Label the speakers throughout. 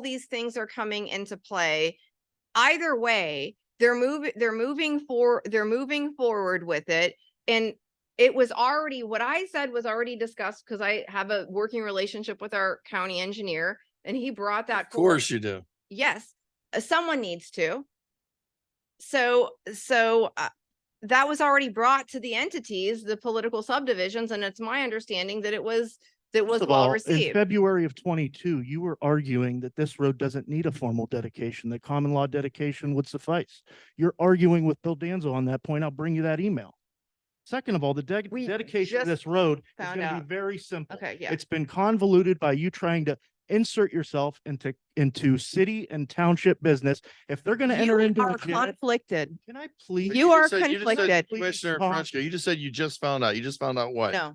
Speaker 1: these things are coming into play. Either way, they're moving, they're moving for, they're moving forward with it. And it was already, what I said was already discussed because I have a working relationship with our county engineer and he brought that.
Speaker 2: Of
Speaker 1: forward.
Speaker 2: course you do.
Speaker 1: Yes, uh, someone needs to. So, so uh, that was already brought to the entities, the political subdivisions, and it's my understanding that it was, that was
Speaker 3: First of
Speaker 1: well
Speaker 3: all, In
Speaker 1: received.
Speaker 3: February of twenty-two, you were arguing that this road doesn't need a formal dedication, that common law dedication would suffice. You're arguing with Bill Danzo on that point. I'll bring you that email. Second of all, the ded-
Speaker 1: We
Speaker 3: dedication
Speaker 1: just
Speaker 3: of this road is
Speaker 1: found
Speaker 3: gonna
Speaker 1: out.
Speaker 3: be very simple.
Speaker 1: Okay, yeah.
Speaker 3: It's been convoluted by you trying to insert yourself into, into city and township business. If they're gonna enter
Speaker 1: You
Speaker 3: into.
Speaker 1: are
Speaker 3: a jam-
Speaker 1: conflicted.
Speaker 3: Can I please?
Speaker 2: But
Speaker 1: You are
Speaker 2: just said- you just said-
Speaker 1: conflicted.
Speaker 2: Commissioner
Speaker 3: Huh?
Speaker 2: Frenchco, you just said you just found out. You just found out what?
Speaker 1: No.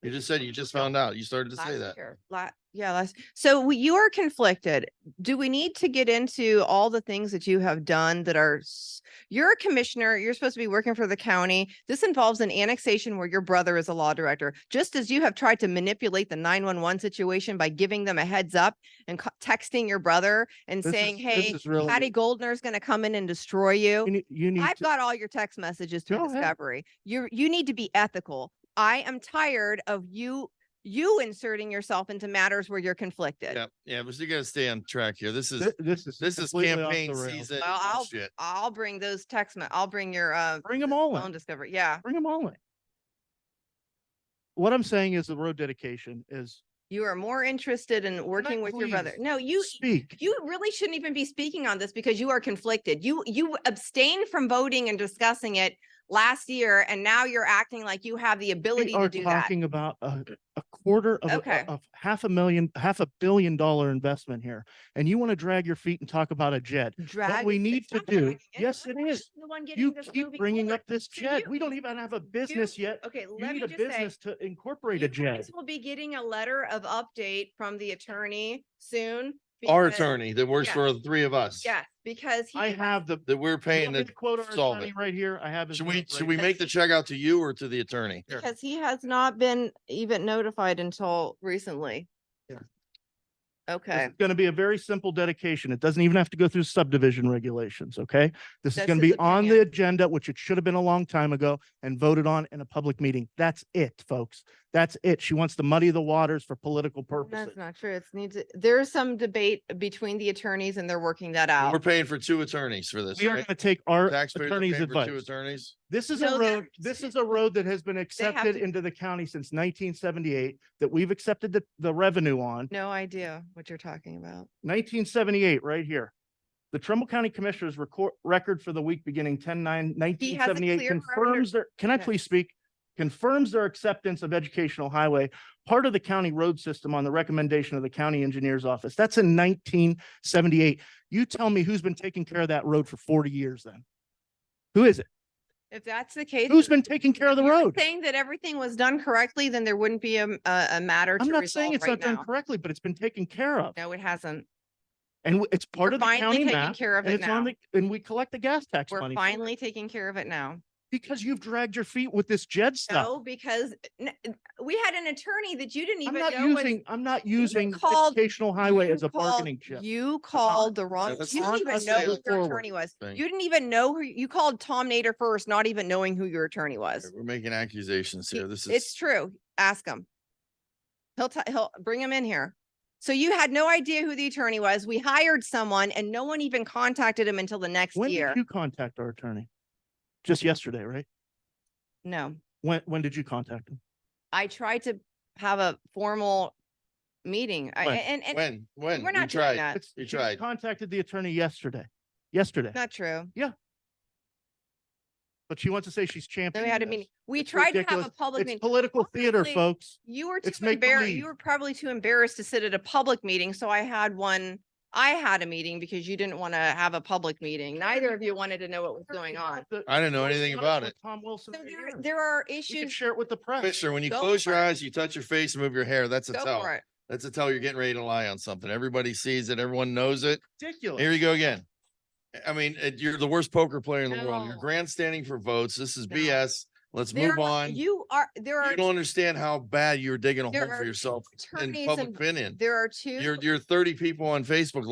Speaker 2: You just said you just found out. You started to say
Speaker 1: last
Speaker 2: that.
Speaker 1: year, la- yeah, last, so we- you are conflicted. Do we need to get into all the things that you have done that are, s- you're a commissioner, you're supposed to be working for the county. This involves an annexation where your brother is a law director, just as you have tried to manipulate the nine-one-one situation by giving them a heads up and co- texting your brother and
Speaker 3: This
Speaker 1: saying,
Speaker 3: is- this
Speaker 1: hey,
Speaker 3: is really-
Speaker 1: Patty Goldner's gonna come in and destroy you.
Speaker 3: You need, you need.
Speaker 1: I've
Speaker 3: to-
Speaker 1: got all your text messages to
Speaker 3: Go ahead.
Speaker 1: Discovery. You you need to be ethical. I am tired of you you inserting yourself into matters where you're conflicted.
Speaker 2: Yeah, yeah, but you gotta stay on track here. This is,
Speaker 3: thi- This is.
Speaker 2: this is
Speaker 3: completely off
Speaker 2: campaign
Speaker 3: the rails.
Speaker 2: season.
Speaker 1: Well, I'll-
Speaker 2: bullshit.
Speaker 1: I'll bring those text. Me- I'll bring your uh
Speaker 3: Bring them all in.
Speaker 1: phone discovery. Yeah,
Speaker 3: Bring them all in. What I'm saying is the road dedication is
Speaker 1: you are more interested in working with your brother.
Speaker 3: pleased?
Speaker 1: No, you
Speaker 3: speak.
Speaker 1: you really shouldn't even be speaking on this because you are conflicted. You you abstained from voting and discussing it last year, and now you're acting like you have the ability
Speaker 3: We
Speaker 1: to
Speaker 3: are
Speaker 1: do that.
Speaker 3: talking about a, a quarter of, a-
Speaker 1: Okay.
Speaker 3: of half a million, half a billion dollar investment here. And you want to drag your feet and talk about a jet.
Speaker 1: Drag-
Speaker 3: we
Speaker 1: it's
Speaker 3: need to
Speaker 1: not dragging
Speaker 3: do- yes,
Speaker 1: I'm
Speaker 3: it is.
Speaker 1: The one getting
Speaker 3: You
Speaker 1: this
Speaker 3: keep
Speaker 1: moving
Speaker 3: bringing
Speaker 1: forward.
Speaker 3: up this
Speaker 1: So
Speaker 3: jet.
Speaker 1: you-
Speaker 3: We don't even have a business
Speaker 1: you-
Speaker 3: yet.
Speaker 1: Okay,
Speaker 3: You
Speaker 1: let
Speaker 3: need
Speaker 1: me
Speaker 3: a
Speaker 1: just say.
Speaker 3: business to incorporate a
Speaker 1: you
Speaker 3: jet.
Speaker 1: guys Will be getting a letter of update from the attorney soon.
Speaker 2: Our
Speaker 1: because-
Speaker 2: attorney that works
Speaker 1: yeah.
Speaker 2: for the three of us.
Speaker 1: Yes, because he.
Speaker 3: I have the.
Speaker 2: That we're
Speaker 3: you
Speaker 2: paying
Speaker 3: want me
Speaker 2: to
Speaker 3: to Quote our
Speaker 2: solve
Speaker 3: attorney
Speaker 2: it.
Speaker 3: right here. I have. his
Speaker 2: Should we,
Speaker 3: note
Speaker 2: should
Speaker 3: right
Speaker 2: we
Speaker 3: here.
Speaker 2: make the check out to you or to the attorney?
Speaker 1: Because he has not been even notified until recently.
Speaker 3: Yeah.
Speaker 1: Okay,
Speaker 3: It's going to be a very simple dedication. It doesn't even have to go through subdivision regulations, okay? This is
Speaker 1: That's
Speaker 3: going to
Speaker 1: his
Speaker 3: be on the
Speaker 1: opinion.
Speaker 3: agenda, which it should have been a long time ago and voted on in a public meeting. That's it, folks. That's it. She wants to muddy the waters for political purposes.
Speaker 1: that's not true. It's needs, there's some debate between the attorneys and they're working that
Speaker 2: We're
Speaker 1: out.
Speaker 2: paying for two attorneys for this,
Speaker 3: We are going
Speaker 2: right?
Speaker 3: to take our
Speaker 2: Taxpayers are
Speaker 3: attorney's
Speaker 2: paying for two
Speaker 3: advice.
Speaker 2: attorneys.
Speaker 3: This is
Speaker 1: No,
Speaker 3: a
Speaker 1: they're-
Speaker 3: road, this is a road that has been accepted
Speaker 1: to-
Speaker 3: into the county since nineteen seventy-eight, that we've accepted the, the revenue on.
Speaker 1: No idea what you're talking about.
Speaker 3: nineteen seventy-eight, right here. The Trumbull County Commissioners record, record for the week beginning 10-9-1978
Speaker 1: clear record.
Speaker 3: confirms their, can I
Speaker 1: Okay.
Speaker 3: please speak? Confirms their acceptance of educational highway, part of the county road system on the recommendation of the county engineer's office. That's in nineteen seventy-eight. You tell me who's been taking care of that road for forty years then? Who is it?
Speaker 1: If that's the case.
Speaker 3: Who's been taking care of the
Speaker 1: if you're
Speaker 3: road?
Speaker 1: Saying that everything was done correctly, then there wouldn't be a, m- a, a matter
Speaker 3: I'm
Speaker 1: to
Speaker 3: not saying
Speaker 1: resolve
Speaker 3: it's
Speaker 1: right
Speaker 3: not done
Speaker 1: now.
Speaker 3: correctly, but it's been taken care of.
Speaker 1: No, it hasn't.
Speaker 3: And w- it's part
Speaker 1: We're
Speaker 3: of the
Speaker 1: finally
Speaker 3: county
Speaker 1: taking
Speaker 3: map.
Speaker 1: Care of
Speaker 3: And
Speaker 1: it
Speaker 3: it's on
Speaker 1: now.
Speaker 3: the, and we collect the gas tax
Speaker 1: We're
Speaker 3: money. for it.
Speaker 1: finally taking care of it now.
Speaker 3: Because you've dragged your feet with this Jed stuff.
Speaker 1: No, because n- n- we had an attorney that you didn't
Speaker 3: I'm
Speaker 1: even
Speaker 3: not
Speaker 1: know. was-
Speaker 3: using, I'm not using
Speaker 1: called-
Speaker 3: educational highway
Speaker 1: you
Speaker 3: as a
Speaker 1: called-
Speaker 3: bargaining chip.
Speaker 1: You called the wrong, you
Speaker 2: that's
Speaker 1: didn't
Speaker 3: on
Speaker 1: even
Speaker 3: us
Speaker 1: know
Speaker 3: to
Speaker 1: who
Speaker 3: go
Speaker 1: your
Speaker 3: forward.
Speaker 1: attorney was.
Speaker 2: Thank
Speaker 1: You didn't even know who, you called Tom Nader first, not even knowing who your attorney was.
Speaker 2: We're making accusations
Speaker 1: He-
Speaker 2: here. This
Speaker 1: It's
Speaker 2: is,
Speaker 1: true. Ask him. He'll, t- he'll bring him in here. So you had no idea who the attorney was. We hired someone and no one even contacted him until the next
Speaker 3: When
Speaker 1: year.
Speaker 3: did you contact our attorney? Just yesterday, right?
Speaker 1: No,
Speaker 3: When, when did you contact him?
Speaker 1: I tried to have a formal meeting. I-
Speaker 3: When?
Speaker 1: And, and
Speaker 2: when, when?
Speaker 1: we're
Speaker 2: You
Speaker 1: not
Speaker 2: tried.
Speaker 1: doing that.
Speaker 3: It's-
Speaker 2: You
Speaker 3: she
Speaker 2: tried.
Speaker 3: Contacted the attorney yesterday, yesterday,
Speaker 1: Not true.
Speaker 3: but she wants to say she's
Speaker 1: Then
Speaker 3: championing
Speaker 1: we had a
Speaker 3: this.
Speaker 1: meeting. We
Speaker 3: It's
Speaker 1: tried to have a
Speaker 3: ridiculous.
Speaker 1: public
Speaker 3: It's
Speaker 1: meeting.
Speaker 3: political theater,
Speaker 1: Honestly,
Speaker 3: folks.
Speaker 1: You were too
Speaker 3: it's make
Speaker 1: embarrassed.
Speaker 3: believe.
Speaker 1: You were probably too embarrassed to sit at a public meeting. So I had one, I had a meeting because you didn't want to have a public meeting. Neither of you wanted to know what was going on.
Speaker 3: The-
Speaker 2: I didn't know
Speaker 3: Let's
Speaker 2: anything
Speaker 3: discuss
Speaker 2: about
Speaker 3: with
Speaker 2: it.
Speaker 3: Tom
Speaker 1: So
Speaker 3: Wilson. right
Speaker 1: there,
Speaker 3: here.
Speaker 1: there are
Speaker 3: We can
Speaker 1: issues.
Speaker 3: share it with the press.
Speaker 2: Commissioner, when you
Speaker 1: Go
Speaker 2: close your
Speaker 1: for it.
Speaker 2: eyes, you touch your face, and move your hair, that's a
Speaker 1: Go
Speaker 2: tell.
Speaker 1: for it.
Speaker 2: That's a tell you're getting ready to lie on something. Everybody sees it. Everyone knows it.
Speaker 3: Ridiculous.
Speaker 2: Here you go again. I mean, uh, you're the worst poker player in the world. You're
Speaker 1: No.
Speaker 2: grandstanding for votes. This is
Speaker 1: No.
Speaker 2: BS. Let's
Speaker 1: There
Speaker 2: move
Speaker 1: are-
Speaker 2: on. You
Speaker 1: You are, there are
Speaker 2: don't understand how bad you're digging a
Speaker 1: There
Speaker 2: hole
Speaker 1: are
Speaker 2: for yourself in
Speaker 1: attorneys
Speaker 2: public
Speaker 1: and-
Speaker 2: opinion.
Speaker 1: There are two.
Speaker 2: You're, you're thirty people on Facebook